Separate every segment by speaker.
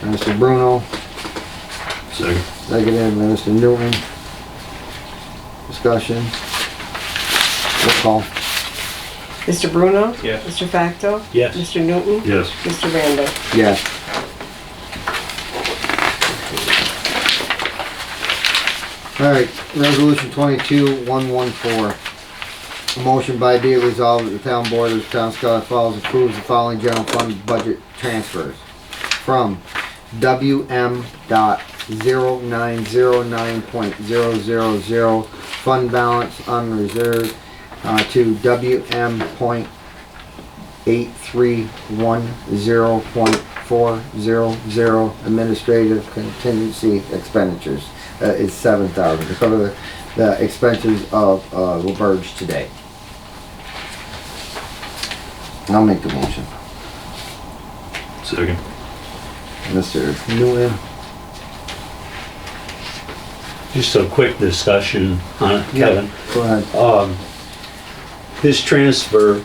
Speaker 1: Mr. Bruno,
Speaker 2: Second.
Speaker 1: seconded by Mr. Newton. Discussion. Roll call.
Speaker 3: Mr. Bruno?
Speaker 4: Yes.
Speaker 3: Mr. Facto?
Speaker 4: Yes.
Speaker 3: Mr. Newton?
Speaker 2: Yes.
Speaker 3: Mr. Randall?
Speaker 1: Yes. All right, resolution twenty-two, one, one, four. A motion by be it resolved that the town board of the town of Scholar Falls approves the following general fund budget transfers. From WM dot zero nine zero nine point zero zero zero, fund balance unreserved, uh, to WM point 8310.400 administrative contingency expenditures uh, is 7,000 to cover the- the expenses of uh, LaBerge today. I'll make the motion.
Speaker 2: Second.
Speaker 1: Mr. Nguyen?
Speaker 5: Just a quick discussion on it, Kevin.
Speaker 1: Go ahead.
Speaker 5: Um, This transfer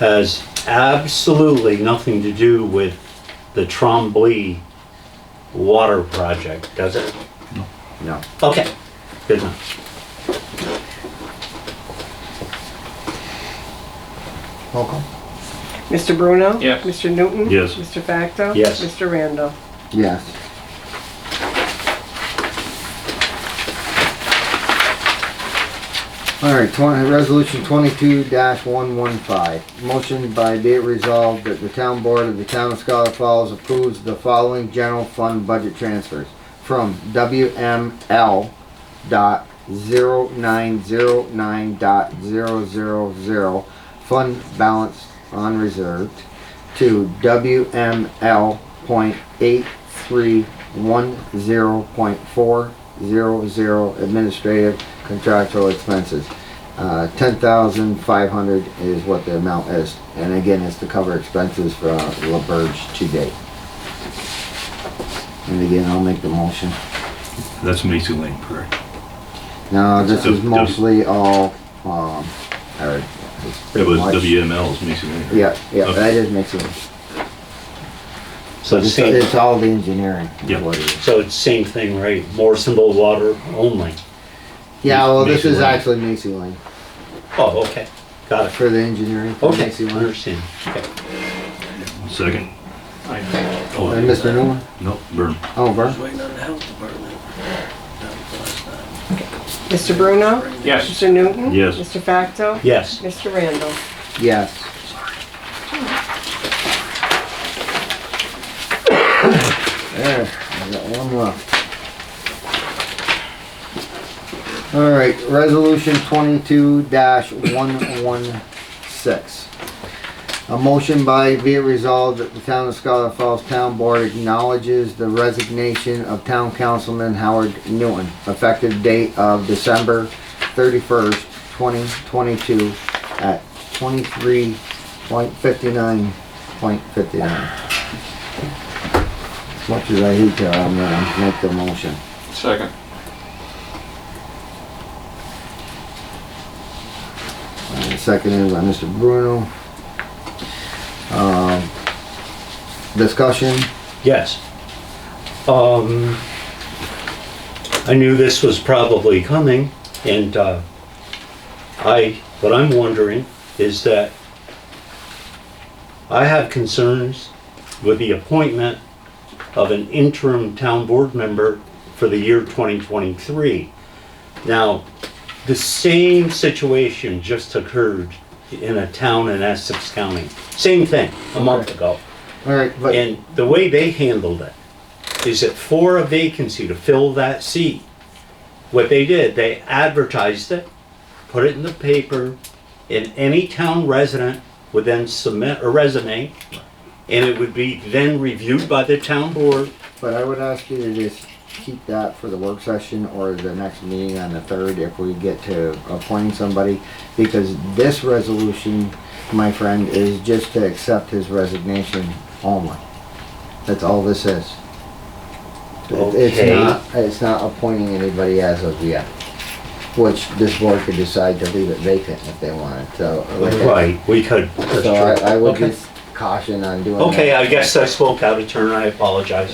Speaker 5: has absolutely nothing to do with the Trombley water project, does it?
Speaker 1: No.
Speaker 5: Okay, good enough.
Speaker 1: Roll call.
Speaker 3: Mr. Bruno?
Speaker 4: Yes.
Speaker 3: Mr. Newton?
Speaker 2: Yes.
Speaker 3: Mr. Facto?
Speaker 5: Yes.
Speaker 3: Mr. Randall?
Speaker 1: Yes. All right, twenty, resolution twenty-two one one five. Motion by be it resolved that the town board of the town of Scholar Falls approves the following general fund budget transfers from WML dot zero nine zero nine dot zero zero zero, fund balance unreserved, to WML point eight three one zero point four zero zero administrative contractual expenses. Uh, ten thousand five hundred is what the amount is, and again, it's to cover expenses for uh, LaBerge to date. And again, I'll make the motion.
Speaker 2: That's Macy Lane, correct?
Speaker 1: No, this
Speaker 2: So,
Speaker 1: is
Speaker 2: W-
Speaker 1: mostly all, um, Eric. it's
Speaker 2: It
Speaker 1: pretty
Speaker 2: was
Speaker 1: much-
Speaker 2: WML's Macy Lane. right?
Speaker 1: Yeah, yeah,
Speaker 2: Okay.
Speaker 1: that is mixing.
Speaker 5: So it's
Speaker 1: It's,
Speaker 5: same,
Speaker 1: it's all the engineering. is
Speaker 2: Yeah.
Speaker 1: what it is.
Speaker 5: so it's same thing, right? Morrisonville water only.
Speaker 1: Yeah, well, this
Speaker 2: Macy
Speaker 1: is
Speaker 2: Lane.
Speaker 1: actually Macy Lane
Speaker 5: Oh, okay, got it.
Speaker 1: for the engineering. for
Speaker 5: Okay,
Speaker 1: Macy Lane.
Speaker 5: understand. Okay.
Speaker 2: Second. Oh,
Speaker 1: And Mr. Newman,
Speaker 2: No, burn.
Speaker 1: oh, Vern,
Speaker 6: waiting on the health department. That was last night.
Speaker 3: Mr. Bruno?
Speaker 4: Yes.
Speaker 3: Mr. Newton?
Speaker 2: Yes.
Speaker 3: Mr. Facto?
Speaker 5: Yes,
Speaker 3: Mr. Randall?
Speaker 1: yes. There, I got one left. All right, resolution twenty-two one one six. A motion by be it resolved that the town of Scholar Falls Town Board acknowledges the resignation of town councilman Howard Newton, effective date of December thirty-first, twenty twenty-two, at twenty-three point fifty-nine point fifty-nine. As much as I hate to, I'm gonna make the motion.
Speaker 4: Second.
Speaker 1: And Seconded by Mr. Bruno. Um, discussion,
Speaker 5: yes. Um, I knew this was probably coming and, uh, I, what I'm wondering is that I have concerns with the appointment of an interim town board member for the year 2023. Now, the same situation just occurred in a town in Essex County. Same thing, a month ago.
Speaker 1: alright, but,
Speaker 5: And the way they handled it is that for a vacancy to fill that seat, what they did, they advertised it, put it in the paper, and any town resident would then submit a resume, and it would be then reviewed by the town board.
Speaker 1: but I would ask you to just keep that for the work session or the next meeting on the third if we get to appointing somebody. Because this resolution, my friend, is just to accept his resignation only. That's all this is. It- It's
Speaker 5: Okay.
Speaker 1: not, it's not appointing anybody as of yet, which this board could decide to leave it vacant if they wanted, so. like I-
Speaker 5: Right, we could.
Speaker 1: So I, I would
Speaker 5: Okay.
Speaker 1: just caution on doing that.
Speaker 5: Okay, I guess I spoke out of turn, I apologize.